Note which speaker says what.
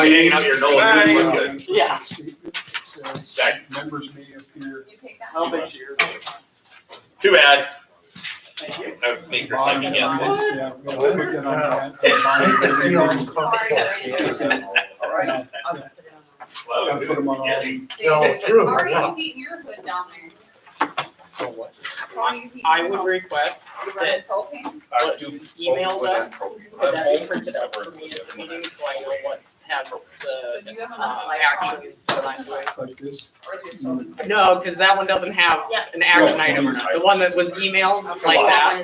Speaker 1: hanging out your nose.
Speaker 2: Bye.
Speaker 1: Look good.
Speaker 3: Yeah.
Speaker 4: It says
Speaker 1: Back.
Speaker 4: members may appear.
Speaker 5: You take that.
Speaker 3: How much your?
Speaker 1: Too bad.
Speaker 3: Thank you.
Speaker 1: I would make her second guess. it.
Speaker 4: Yeah, we'll put that on that. You know,
Speaker 3: Alright.
Speaker 1: Well, I would do
Speaker 4: Put
Speaker 1: it
Speaker 4: 'em on all.
Speaker 1: again.
Speaker 5: No,
Speaker 6: true,
Speaker 5: Ari,
Speaker 6: yeah.
Speaker 5: you heat your hood down there.
Speaker 3: I- I would request
Speaker 5: You running
Speaker 3: that
Speaker 5: propane?
Speaker 1: I would do
Speaker 3: email
Speaker 1: both with and
Speaker 3: Uh,
Speaker 1: pro-
Speaker 3: us, could that be
Speaker 1: both
Speaker 3: printed out for
Speaker 1: with
Speaker 3: me
Speaker 1: and
Speaker 3: at the
Speaker 1: pro-
Speaker 3: meeting, so I know what has
Speaker 5: So
Speaker 3: the,
Speaker 5: do you have enough
Speaker 3: uh,
Speaker 5: light on?
Speaker 3: actions that I'm doing.
Speaker 4: Like this.
Speaker 5: Or is it-
Speaker 3: No, because that one doesn't have an action item, the one that was emailed, it's like that.